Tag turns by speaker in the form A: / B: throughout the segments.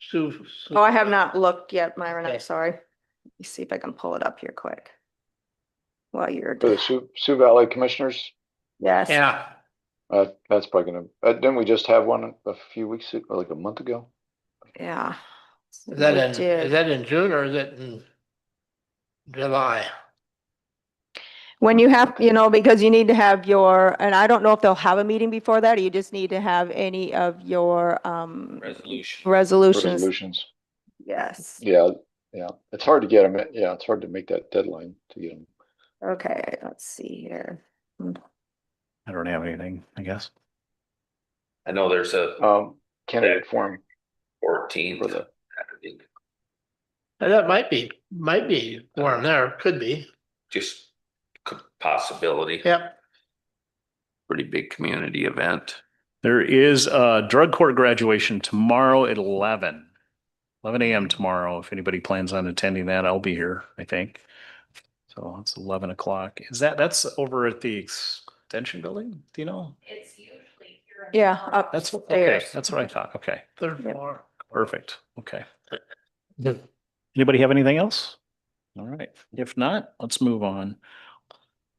A: Sue. Sue-
B: Oh, I have not looked yet, Myron,
A: Okay.
B: I'm sorry. Let me see if I can pull it up here quick. While you're,
C: For the Sioux, Sioux Valley Commissioners,
B: yes,
A: Yeah,
C: uh, that's probably gonna, uh, didn't we just have one a few weeks, ago, like a month ago?
B: yeah.
A: is that
B: We
A: in, is
B: did.
A: that in June or is it in July?
B: When you have, you know, because you need to have your, and I don't know if they'll have a meeting before that, or you just need to have any of your, um,
D: Resolution.
B: resolutions.
C: Resolutions,
B: Yes,
C: yeah, yeah, it's hard to get them, yeah, it's hard to make that deadline to get them.
B: okay, let's see here.
E: I don't have anything, I guess.
D: I know there's a
C: Um, candidate forum,
D: fourteenth.
A: And That might be, might be warm there, could be.
D: Just c- possibility.
A: Yep,
D: Pretty big community event.
E: There is a drug court graduation tomorrow at eleven. Eleven AM tomorrow. If anybody plans on attending that, I'll be here, I think. So it's eleven o'clock. Is that, that's over at the extension building? Do you know?
F: It's usually here. in
B: Yeah,
F: town.
B: up,
E: That's, okay,
B: Upstairs.
E: that's what I thought. Okay,
A: third
B: Yep.
A: floor.
E: perfect. Okay. Anybody have anything else? All right, if not, let's move on.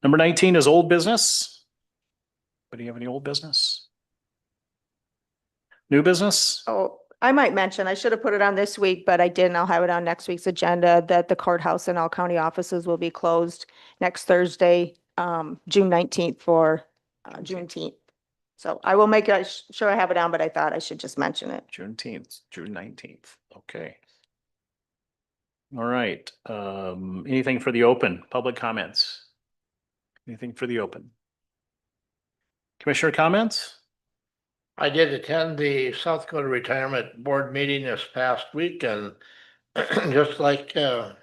E: Number nineteen is old business. Anybody have any old business? New business?
B: oh, I might mention, I should have put it on this week, but I didn't. I'll have it on next week's agenda that the courthouse and all county offices will be closed next Thursday, um, June nineteenth for, uh, Juneteenth. So I will make, it- sh- sure I have it on, but I thought I should just mention it.
E: Juneteenth, June nineteenth, okay. All right, um, anything for the open, public comments? Anything for the open? Commissioner comments?
A: I did attend the South Dakota Retirement Board meeting this past week and just like uh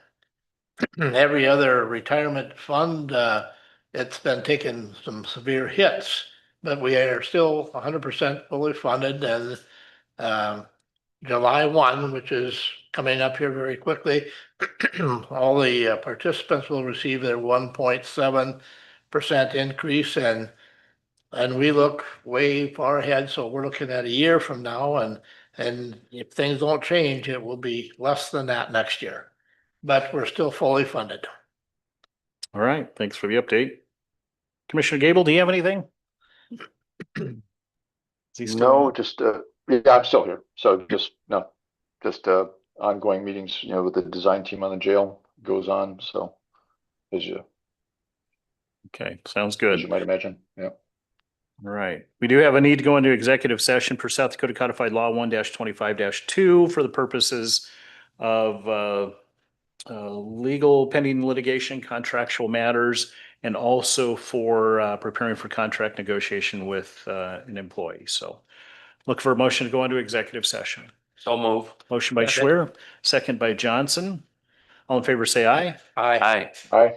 A: every other retirement fund, uh, it's been taking some severe hits, but we are still hundred percent fully funded and um July one, which is coming up here very quickly, all the uh, participants will receive their one point seven percent increase and and we look way far ahead, so we're looking at a year from now and, and if things don't change, it will be less than that next year. But we're still fully funded.
E: All right, thanks for the update. Commissioner Gable, do you have anything? Is he still
C: no,
E: on?
C: just, uh, yeah, I'm still here, so just, no, just, uh, ongoing meetings, you know, with the design team on the jail goes on, so. As you,
E: Okay, sounds
C: as
E: good.
C: you might imagine, yeah.
E: All right. We do have a need to go into executive session per South Dakota Codified Law one twenty-five two for the purposes of uh, uh, legal pending litigation, contractual matters, and also for uh, preparing for contract negotiation with uh, an employee. So look for a motion to go into executive session.
D: So move.
E: Motion by
A: Second.
E: Schwer, second by Johnson. All in favor, say aye.
A: Aye.
D: Aye.
C: Hi,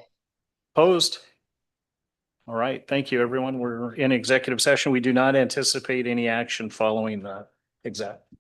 E: Opposed? All right, thank you, everyone. We're in executive session. We do not anticipate any action following the exact